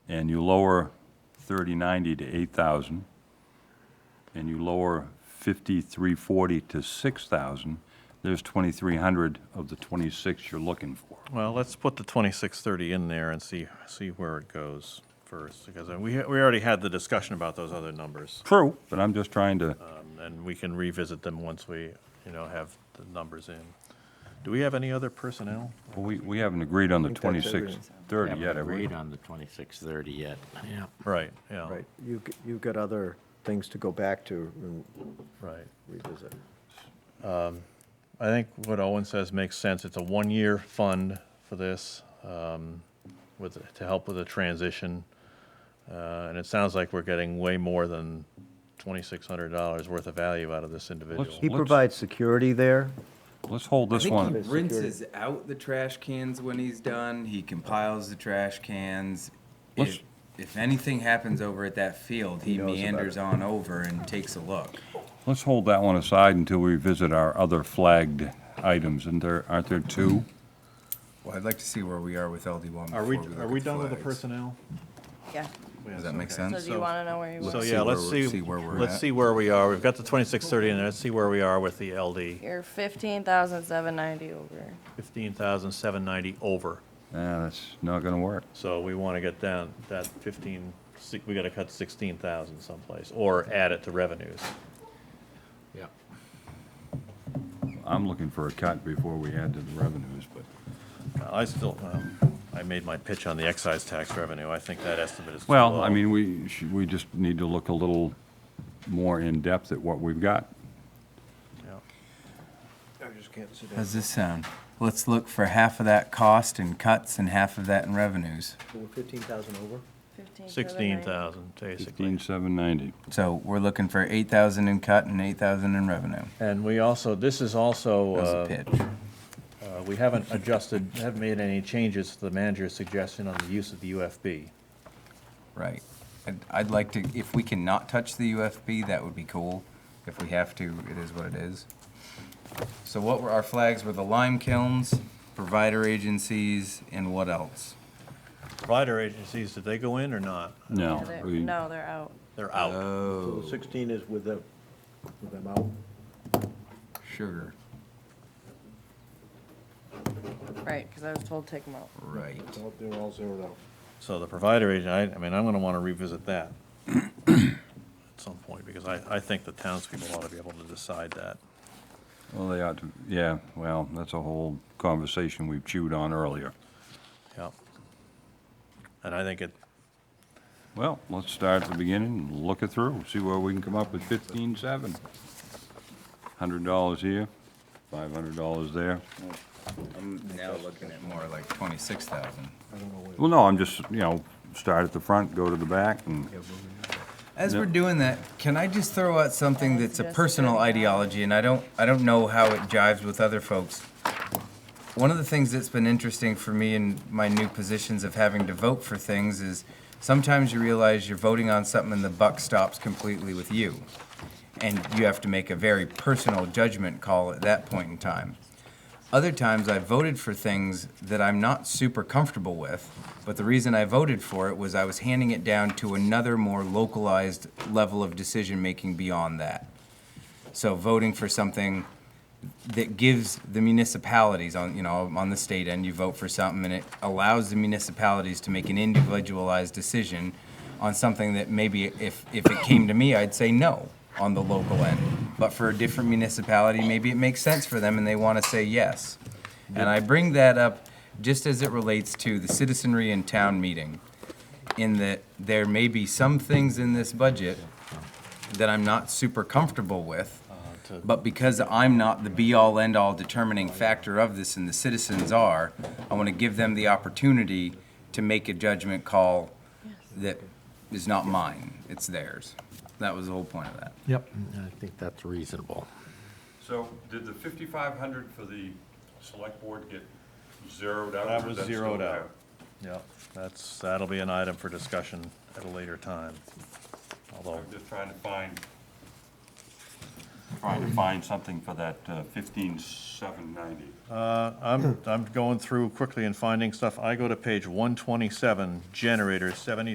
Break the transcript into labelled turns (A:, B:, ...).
A: and you lower 3090 to 8,000, and you lower 5340 to 6,000, there's 2,300 of the 26 you're looking for.
B: Well, let's put the twenty-six thirty in there and see, see where it goes first, because we, we already had the discussion about those other numbers.
A: True. But I'm just trying to,
B: um, And we can revisit them once we, you know, have the numbers in. Do we have any other personnel?
A: we, we haven't agreed on the
C: I think that's
A: 2630 yet, have we?
D: Agreed on the 2630 yet. Yeah.
B: Right, yeah,
C: Right, you, g- you've got other things to go back to and
B: right.
C: revisit.
B: I think what Owen says makes sense. It's a one-year fund for this, um, with, to help with the transition. Uh, and it sounds like we're getting way more than twenty-six hundred dollars worth of value out of this individual.
C: He
A: Let's-
C: provides security there,
A: Let's hold
E: I
A: this
E: think
A: one.
E: he rinses out the trash cans when he's done. He compiles the trash cans.
A: Let's-
E: If, if anything happens over at that field, he
C: knows about
E: meanders on over and takes a look.
A: Let's hold that one aside until we visit our other flagged items, and there, aren't there two?
F: Well, I'd like to see where we are with LD one.
B: Are we,
F: before
B: are
F: look
B: we
F: at
B: done with the
F: flags.
B: personnel?
G: Yeah,
F: Does that make
G: so
F: sense?
G: do you want to know where you
B: So,
G: were?
B: yeah, let's
F: where we're-
B: see,
F: see where we're
B: let's
F: at.
B: see where we are. We've got the twenty-six thirty in there. Let's see where we are with the LD.
G: You're fifteen thousand seven ninety over.
B: Fifteen thousand seven ninety over.
A: Nah, that's not gonna work.
B: So we want to get down that fifteen, si- we got to cut sixteen thousand someplace, or add it to revenues.
D: Yep.
A: I'm looking for a cut before we add to the revenues, but
B: I still, um, I made my pitch on the excise tax revenue. I think that estimate is too low.
A: Well, I mean, we, should- we just need to look a little more in-depth at what we've got.
B: Yeah.
E: How's this sound? Let's look for half of that cost in cuts and half of that in revenues.
C: fifteen thousand over.
B: Sixteen thousand, basically.
A: 15790.
E: So we're looking for eight thousand in cut and eight thousand in revenue.
B: And we also, this is also,
E: That was
B: uh,
E: a pitch.
B: uh, we haven't adjusted, haven't made any changes to the manager's suggestion on the use of the UFB.
E: Right. I'd, I'd like to, if we can not touch the UFB, that would be cool. If we have to, it is what it is. So what were our flags? Were the lime kilns, provider agencies, and what else?
B: Provider agencies, did they go in or not?
A: No, we-
G: No, they're out.
B: They're
E: Uh,
B: out.
E: Oh.
C: So the sixteen is with the, with them out.
E: Sugar,
G: Right, because I was told to take them out.
E: right.
C: Nope, They're all zeroed out.
B: So the provider agent, I, I mean, I'm gonna wanna revisit that at some point, because I, I think the townspeople ought to be able to decide that.
A: well, they ought to, yeah, well, that's a whole conversation we've chewed on earlier.
B: Yeah. And I think it,
A: Well, let's start at the beginning, and look it through, see where we can come up with 157. $100 here, $500 there.
E: I'm now looking at more like twenty-six thousand.
A: Well, no, I'm just, you know, start at the front, go to the back, and
E: As we're doing that, can I just throw out something that's a
G: Just
E: personal
G: kidding.
E: ideology, and I don't, I don't know how it jives with other folks. One of the things that's been interesting for me in my new positions of having to vote for things is sometimes you realize you're voting on something and the buck stops completely with you. And you have to make a very personal judgment call at that point in time. Other times I voted for things that I'm not super comfortable with, but the reason I voted for it was I was handing it down to another more localized level of decision making beyond that. So voting for something that gives the municipalities on, you know, on the state end, you vote for something and it allows the municipalities to make an individualized decision on something that maybe if, if it came to me, I'd say no on the local end. But for a different municipality, maybe it makes sense for them and they want to say yes. And I bring that up just as it relates to the citizenry and town meeting, in that there may be some things in this budget that I'm not super comfortable with. But because I'm not the be-all, end-all determining factor of this and the citizens are, I want to give them the opportunity to make a judgment call that is not mine, it's theirs. That was the whole point of that.
D: Yep. I think that's reasonable.
A: So did the 5,500 for the select board get zeroed out?
B: that
A: or is
B: was
A: still
B: zeroed
A: there?
B: out. Yeah, that's, that'll be an item for discussion at a later time. Although,
A: I'm just trying to find, trying to find something for that uh, 15790.
B: uh, I'm, I'm going through quickly and finding stuff. I go to page one twenty-seven, generator seventy